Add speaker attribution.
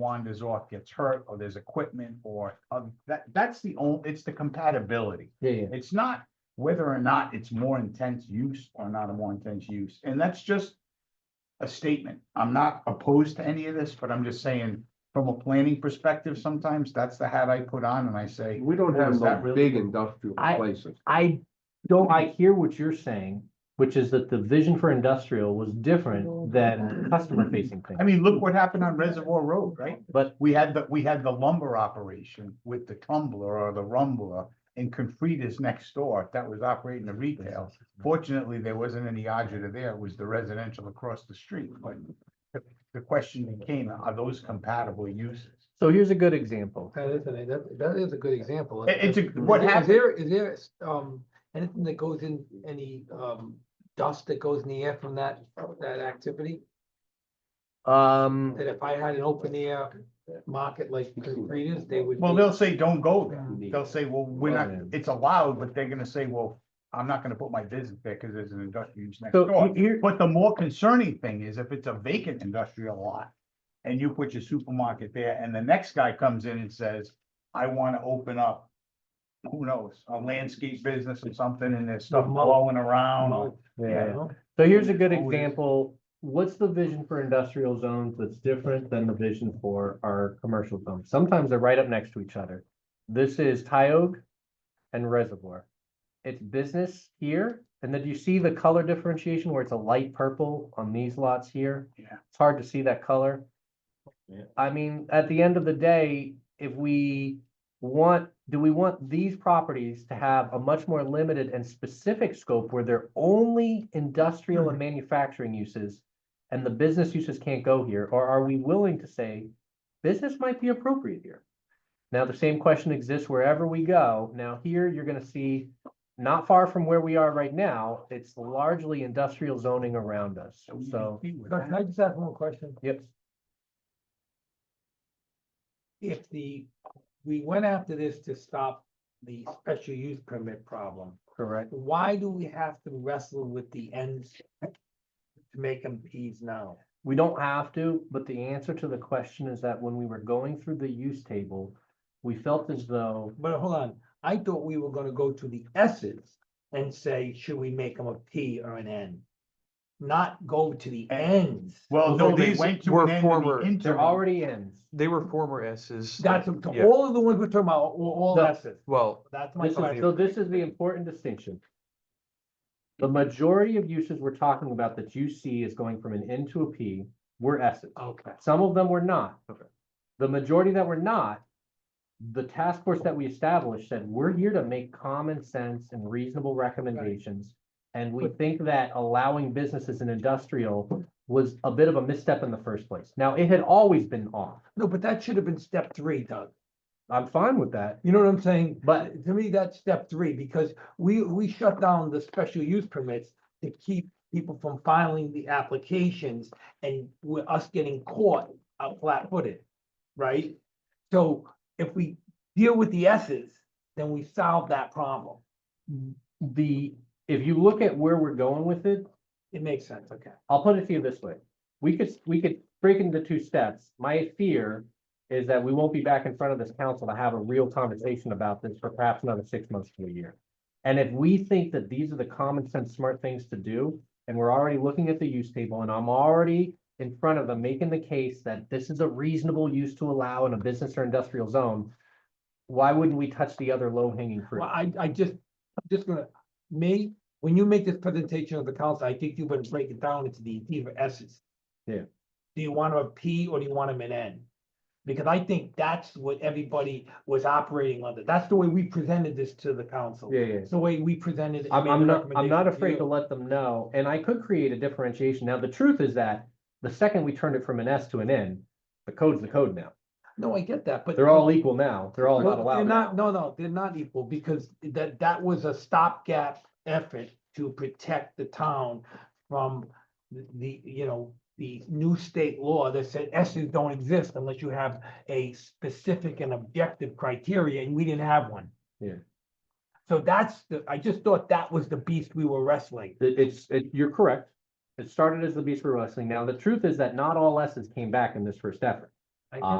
Speaker 1: wanders off, gets hurt, or there's equipment or, other that, that's the only, it's the compatibility.
Speaker 2: Yeah, yeah.
Speaker 1: It's not whether or not it's more intense use or not a more intense use, and that's just. A statement. I'm not opposed to any of this, but I'm just saying, from a planning perspective, sometimes that's the hat I put on and I say.
Speaker 3: We don't
Speaker 1: Well,
Speaker 3: have
Speaker 1: is that
Speaker 3: no
Speaker 1: really-
Speaker 3: big industrial
Speaker 2: I-
Speaker 3: places.
Speaker 2: I don't, I hear what you're saying, which is that the vision for industrial was different than customer facing
Speaker 1: I
Speaker 2: things.
Speaker 1: mean, look what happened on Reservoir Road, right?
Speaker 2: But
Speaker 1: We had the, we had the lumber operation with the tumbler or the rumbler and Confrida's next door that was operating the retail. Fortunately, there wasn't any agita there. It was the residential across the street, but the- the question became, are those compatible uses?
Speaker 2: so here's a good example.
Speaker 4: That is, an- that, that is a good example.
Speaker 1: It- it's a-
Speaker 4: Is
Speaker 1: what
Speaker 4: there-
Speaker 1: happened-
Speaker 4: Is there, is there, um, anything that goes in, any, um, dust that goes in the air from that, that activity?
Speaker 2: Um,
Speaker 4: That if I had an open air market like Rita's, they would.
Speaker 1: Well,
Speaker 4: be-
Speaker 1: they'll say, don't go there.
Speaker 4: Mm.
Speaker 1: They'll say, well, we're not, it's allowed, but they're gonna say, well, I'm not gonna put my business there because there's an industrial use next
Speaker 2: so
Speaker 1: door.
Speaker 2: here,
Speaker 1: But the more concerning thing is if it's a vacant industrial lot and you put your supermarket there and the next guy comes in and says, I wanna open up. Who knows, a landscape business or something and there's stuff
Speaker 4: Remote.
Speaker 1: blowing around. or-
Speaker 4: Well, you
Speaker 2: yeah,
Speaker 4: know?
Speaker 2: so here's a good
Speaker 1: Always.
Speaker 2: example. What's the vision for industrial zones that's different than the vision for our commercial zones? Sometimes they're right up next to each other. This is Tioga and Reservoir. It's business here, and then you see the color differentiation where it's a light purple on these lots here?
Speaker 1: Yeah.
Speaker 2: It's hard to see that color.
Speaker 3: Yeah.
Speaker 2: I mean, at the end of the day, if we want, do we want these properties to have a much more limited and specific scope where they're only industrial and manufacturing uses? And the business uses can't go here, or are we willing to say, business might be appropriate here? Now, the same question exists wherever we go. Now, here, you're gonna see, not far from where we are right now, it's largely industrial zoning around us,
Speaker 1: So we
Speaker 2: so,
Speaker 1: agree with
Speaker 4: Can I
Speaker 1: that.
Speaker 4: just ask one question?
Speaker 2: yep.
Speaker 4: if the, we went after this to stop the special use permit problem,
Speaker 2: Correct.
Speaker 4: why do we have to wrestle with the ends to make them Ps now?
Speaker 2: We don't have to, but the answer to the question is that when we were going through the use table, we felt as though,
Speaker 4: But hold on, I thought we were gonna go to the S's and say, should we make them a P or an N? Not go to the ends.
Speaker 1: Well, no,
Speaker 5: Although
Speaker 1: they
Speaker 5: these
Speaker 1: went to
Speaker 5: were
Speaker 1: an end in the
Speaker 5: former- they're
Speaker 2: they're
Speaker 1: interim.
Speaker 2: already ends.
Speaker 5: They were former S's.
Speaker 4: That's,
Speaker 5: yeah.
Speaker 4: to all of the ones we're talking about, were all
Speaker 2: No.
Speaker 4: S's.
Speaker 5: Well,
Speaker 4: That's my
Speaker 2: This is,
Speaker 4: question.
Speaker 2: so this is the important distinction. The majority of uses we're talking about that you see is going from an N to a P were S's.
Speaker 4: Okay.
Speaker 2: Some of them were not.
Speaker 5: Okay.
Speaker 2: The majority that were not, the task force that we established said, we're here to make common sense and reasonable recommendations. And we think that allowing businesses and industrial was a bit of a misstep in the first place. Now, it had always been off.
Speaker 4: No, but that should have been step three, Doug.
Speaker 2: I'm fine with that.
Speaker 4: You know what I'm saying?
Speaker 2: But-
Speaker 4: To me, that's step three, because we, we shut down the special use permits to keep people from filing the applications and with us getting caught out flat footed, right? So if we deal with the S's, then we solve that problem.
Speaker 2: The, if you look at where we're going with it,
Speaker 4: It makes sense, okay.
Speaker 2: I'll put it to you this way. We could, we could break into two steps. My fear is that we won't be back in front of this council to have a real conversation about this for perhaps another six months to a year. And if we think that these are the common sense, smart things to do, and we're already looking at the use table and I'm already in front of them making the case that this is a reasonable use to allow in a business or industrial zone, why wouldn't we touch the other low hanging fruit?
Speaker 4: Well, I, I just, I'm just gonna, me, when you make this presentation of the council, I think you better break it down into the deeper essence.
Speaker 2: Yeah.
Speaker 4: Do you want 'em a P or do you want them an N? Because I think that's what everybody was operating under. That's the way we presented this to the council.
Speaker 2: Yeah, yeah.
Speaker 4: It's the way we presented. it.
Speaker 2: I'm,
Speaker 4: made
Speaker 2: I'm
Speaker 4: the
Speaker 2: not, I'm not
Speaker 4: recommendation to
Speaker 2: afraid to
Speaker 4: you.
Speaker 2: let them know, and I could create a differentiation. Now, the truth is that the second we turned it from an S to an N, the code's the code now.
Speaker 4: No, I get that, but.
Speaker 2: They're all equal now. They're all not
Speaker 4: Well, They're
Speaker 2: allowed. now.
Speaker 4: not, no, no, they're not equal because that, that was a stopgap effort to protect the town from the- the, you know, the new state law that said S's don't exist unless you have a specific and objective criteria, and we didn't have one.
Speaker 2: Yeah.
Speaker 4: So that's the, I just thought that was the beast we were wrestling.
Speaker 2: It- it's, it, you're correct. It started as the beast for wrestling. Now, the truth is that not all S's came back in this first effort.
Speaker 4: I
Speaker 2: Ah.